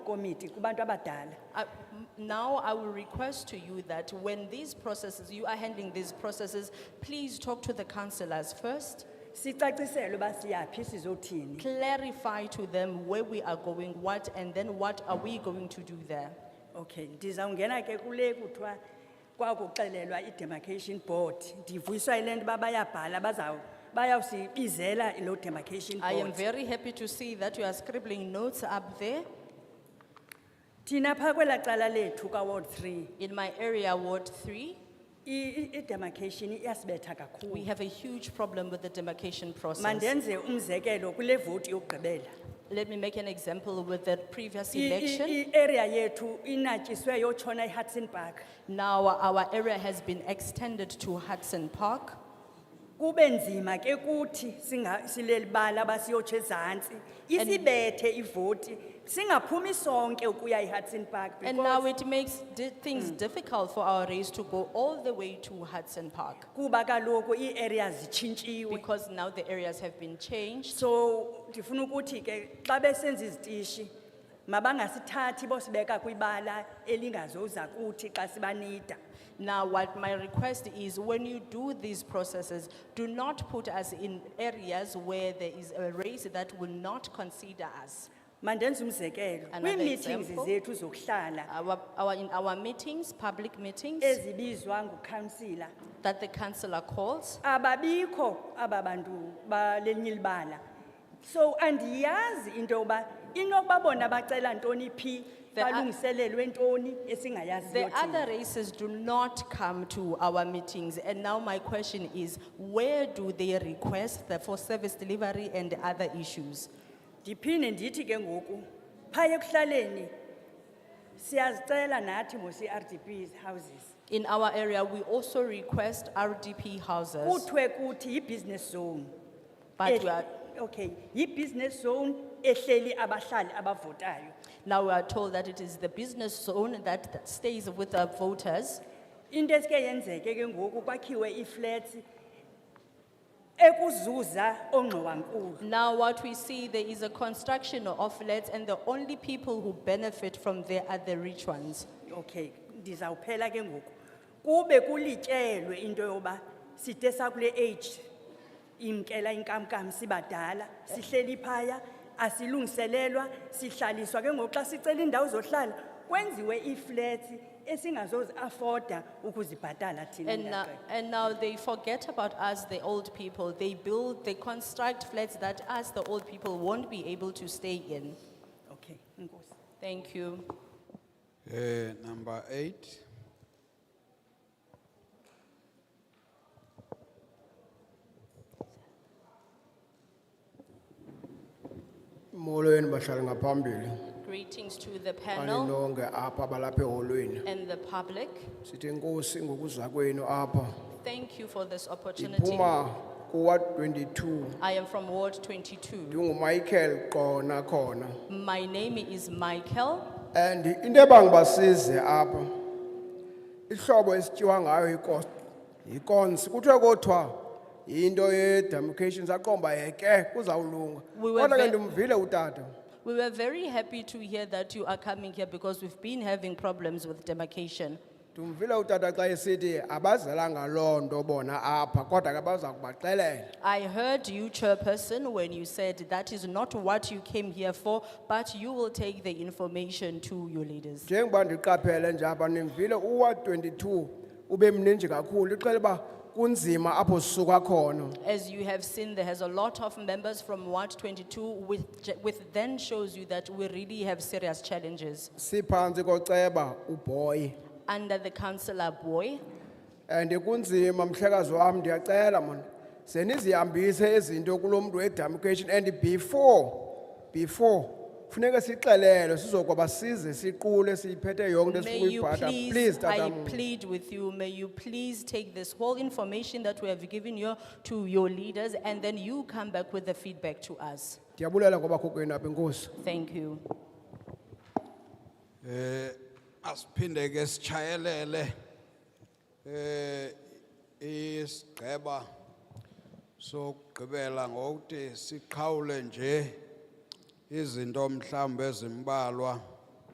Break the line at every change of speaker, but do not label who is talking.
komiti kubantu abadala.
I- Now, I will request to you that when these processes, you are handling these processes, please talk to the councillors first.
Sicacisele uba siyaphi sizothini.
Clarify to them where we are going, what, and then what are we going to do there.
Okay, ndizawungena ke kule kuthiwa kwakuxelelwa i-demarcation board. Ndivuyiswa yile nto uba bayabhala bazawu bayawusibizela loo demarcation
I am
board.
very happy to see that you are scribbling notes up there.
Thina phaa kwelaa cala lethu kaWard three,
In my area, Ward Three,
i- i- i-demarcation iyasibetha
we
kakhulu.
have a huge problem with the demarcation process.
Mandenze umzekelo kule voti yokugqibela.
Let me make an example with the previous
I- i-
election.
i- Area yethu inatyiswe yotshona eHudson Park.
Now, our area has been extended to Hudson Park.
Kube nzima ke kuthi singa silelibala basiyotshe ezantsi isibethe ivoti singaphumi sonke ukuya eHudson Park
And now
because
it makes di- things difficult for our race to go all the way to Hudson Park
kuba kaloku ii-areas zitshintshiwe.
because now the areas have been changed.
So ndifuna ukuthi ke xa besenza izitishi mabangasithathi bosibeka kwibala elingazoza kuthi xa sibanida.
Now, what my request is when you do these processes, do not put us in areas where there is a race that will not consider us.
Mandenze umzekelo,
Another
kwii-meetings
example.
zethu zokuhlala
Our, our, in our meetings, public meetings
ezibizwa ngukansila
that the councillor calls,
ababikho aba bantu balenye ilibala so andiyazi into yoba inokuba bona bacela ntoni phi
The oth-
balungiselelwe ntoni
the
esingayaziyo
other
thina.
races do not come to our meetings. And now my question is, where do they request the- for service delivery and other issues?
ndiphinde ndithi ke ngoku phaya ekuhlaleni siyazicela nathi mosi-rdp houses
In our area, we also request RDP houses,
kuthiwe kuthi yi-business zone
but
Eh,
we are,
okay yi-business zone ehleli abahlali abavotayo
now we are told that it is the business zone that that stays with the voters.
Into esike yenzeke ke ngoku kwakhiwe iflats ekuzuza ongxowankulu.
Now what we see, there is a construction of flats and the only people who benefit from there are the rich ones.
Okay, ndizawuphela ke ngoku. Kube kulityelwe into yoba side sakule age imkela inkamnkam sibadala, sihleli phaya asilungiselelwa, sihlaliswa ke ngoku xa sicela indawo zohlala kwenziwe iflats esingazozi afforda ukuzibhatala thina.
And, now-
mntaqe.
and now they forget about us, the old people. They build, they construct flats that us, the old people, won't be able to stay in.
Okay, inkosi.
Thank you.
Eh, number eight,
Molweni bahlali ngaphambili.
Greetings to the panel
Aninonke apha balapha eholweni.
and the public.
Sithi inkosi ngokuza kwenu apha.
Thank you for this opportunity.
Iphuma kuwa 22.
I am from Ward 22.
NginguMichael Qona khona.
My name is Michael.
And into ebangibasize apha. Ihlobo esityiwa ngayo ikos ikons kuthiwe kodwa into ye demarcations aqomba yeke kuzawulunga.
We were
Kodwa ke
ve-
ndimvile utata.
We were very happy to hear that you are coming here because we've been having problems with demarcation.
Ndimvile utata xa esithi abazelanga loo nto bona apha kodwa ke baza kubaxelela.
I heard you, Chairperson, when you said that is not what you came here for, but you will take the information to your leaders.
njengoba ndiqaphele nje apha nimvile uwa 22 ube mninji kakhulu ixela uba kunzima apho sisuka khona
As you have seen, there has a lot of members from Ward 22, which, which then shows you that we really have serious challenges.
siphantsi koceba ubhoyi
Under the councillor Boy,
and kunzima mhlekazi wam ndiyacela mona ze nizihambise izinto kulo mntu wedemarcation and before before funeka sixelelwe sizokwaba size siqule siyiphethe yonke into
May
esifuna
you
uyibhata
please,
please
I
tatam
plead with you, may you please take this whole information that we have given you to your leaders and then you come back with the feedback to us.
ndiyabulela kwabakhokwenu apha inkosi
Thank you.
eh, asiphinde ke sichayelele eh, isigqeba sokugqibela ngokuthi siqhawule nje izinto mhlawumbe ezimbalwa